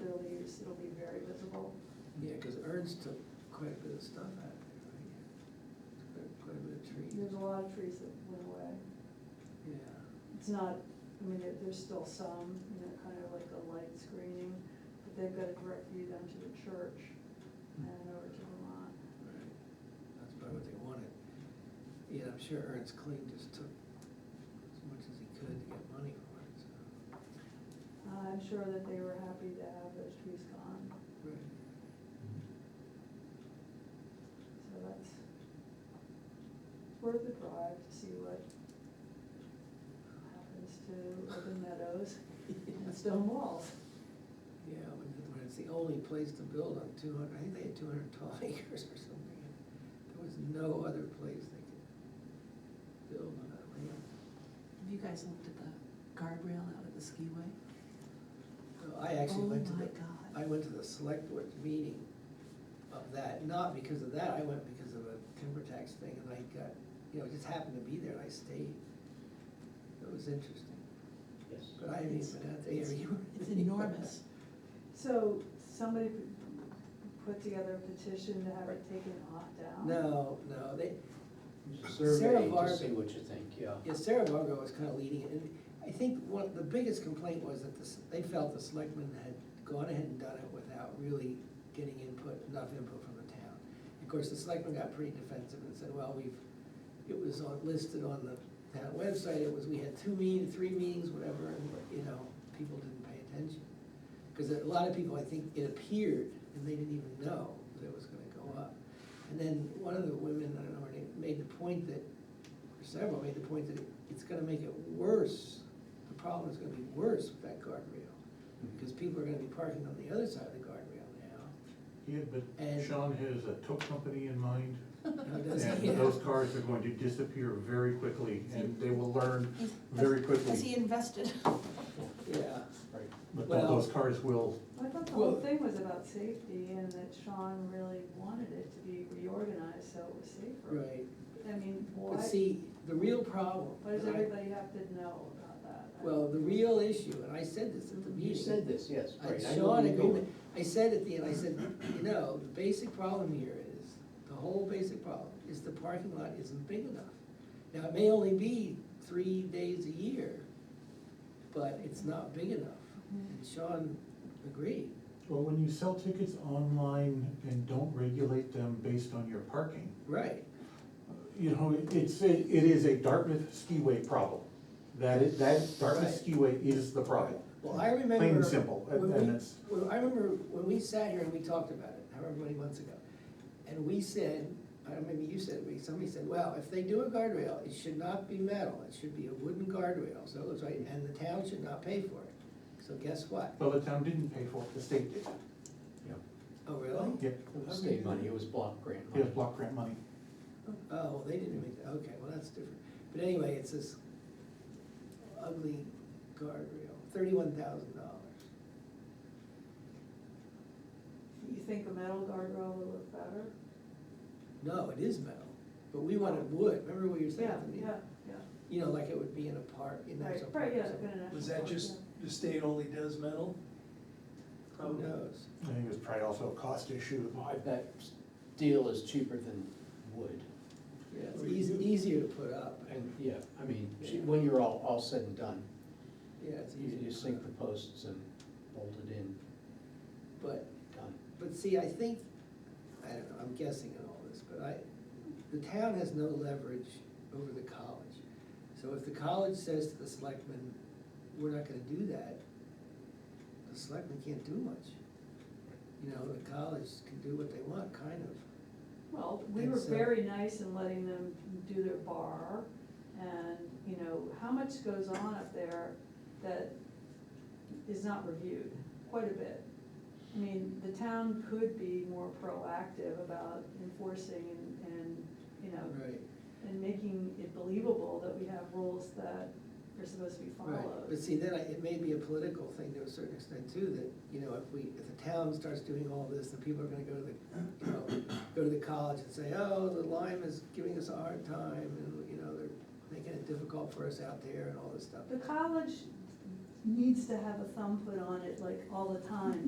really, it's- it'll be very visible. Yeah, because Ernst took quite a bit of stuff out of there, right? Quite- Quite a bit of trees, There's a lot of trees that went away. yeah. It's not, I mean, there, there's still some, you know, kind of like a light screening, but they've got a direct view down to the church and over to Vermont. Right, that's probably what they wanted. Yeah, I'm sure Ernst Kling just took as much as he could to get money for it, so. I'm sure that they were happy to have those trees gone, Right. so that's, it's worth the drive to see what happens to open meadows and stone walls. Yeah, when, when it's the only place to build on two hundred, I think they had two hundred and twelve acres or something. There was no other place they could build on that land. Have you guys looked at the guardrail out at the skiway? So I actually went to the. Oh, my I God. went to the select board meeting of that, not because of that, I went because of a timber tax thing and I got, you know, it just happened to be there and I stayed. It was interesting, Yes. but I haven't even been out there yet. It's enormous. So somebody p- put together a petition to have it taken off down? No, no, they, Sarah Survey to Varg- see what you think, yeah. yeah, Sarah Vargo was kind of leading it, and I think one, the biggest complaint was that the, s- they felt the selectmen had gone ahead and done it without really getting input, enough input from the town. Of course, the selectmen got pretty defensive and said, well, we've, it was on, listed on the town website, it was, we had two meetings, three meetings, whatever, and, you know, people didn't pay attention. Because a lot of people, I think, it appeared, and they didn't even know that it was gonna go up. And then one of the women, I don't know her name, made the point that, or several made the point that it's gonna make it worse, the problem is gonna be worse with that guardrail. Because people are gonna be parking on the other side of the guardrail now. Yeah, but And- Sean has a tow company in mind, Now, does- yeah. and those cars are going to disappear very quickly, and they will learn He's- very has- Has he quickly. invested? Yeah, Right. But Well- those cars will, I thought the Well- whole thing was about safety and that Sean really wanted it to be reorganized so it was safer. right, I mean, why, but see, the real problem. why does and I- everybody have to know about that? I- Well, the real issue, and I said this at the meeting. You said this, yes, right. And I know where Sean you're agreed, going. I said at the end, I said, you know, the basic problem here is, the whole basic problem is the parking lot isn't big enough. Now, it may only be three days a year, but it's not big enough. And Sean agreed, well, when you sell tickets online and don't regulate them based on your parking, right, you know, it's, a- it is a Dartmouth skiway problem. That is, that Dartmouth Right. skiway is the problem. well, I remember. Plain and simple, and- when we- and it's- when- I remember when we sat here and we talked about it, however many months ago, and we said, I don't, maybe you said, it, but somebody said, well, if they do a guardrail, it should not be metal, it should be a wooden guardrail, so it looks right, and the town should not pay for it. So guess what? Well, the town didn't pay for it, the state did. Yeah. Oh, really? Yep, It was state money, it was block grant it money. was block grant money. Oh, well, they didn't make, that. okay, well, that's different, but anyway, it's this ugly guardrail, thirty-one thousand dollars. You think a metal guardrail will look better? No, it is metal, but we wanted wood, remember what you were saying Yeah, to me? yeah, yeah. You know, like it would be in a park, in Right, national park right, or yeah. something. in a Was national that park, just, yeah. the state only does metal? Who knows? I think it was probably also a cost issue. I bet steel is cheaper than wood, Yeah, it's easy, easier to put up, and, yeah, I mean, she- when you're all, all said and done, yeah, it's you easier. you to sink the put up. posts and bolt it in, But, done. but see, I think, I don't know, I'm guessing in all this, but I, the town has no leverage over the college. So if the college says to the selectmen, we're not gonna do that, the selectmen can't do much. You know, the college can do what they want, kind of. Well, we And were so- very nice in letting them do their bar, and, you know, how much goes on up there that is not reviewed? Quite a bit. I mean, the town could be more proactive about enforcing and, and, you know, Right. and making it believable that we have rules that are supposed to be Right, but followed. see, then I, it may be a political thing to a certain extent too, that, you know, if we, if the town starts doing all this, then people are gonna go to the, you know, go to the college and say, oh, the Lyme is giving us a hard time, and, you know, they're making it difficult for us out there and all this stuff. The college needs to have a thumb put on it like all the time,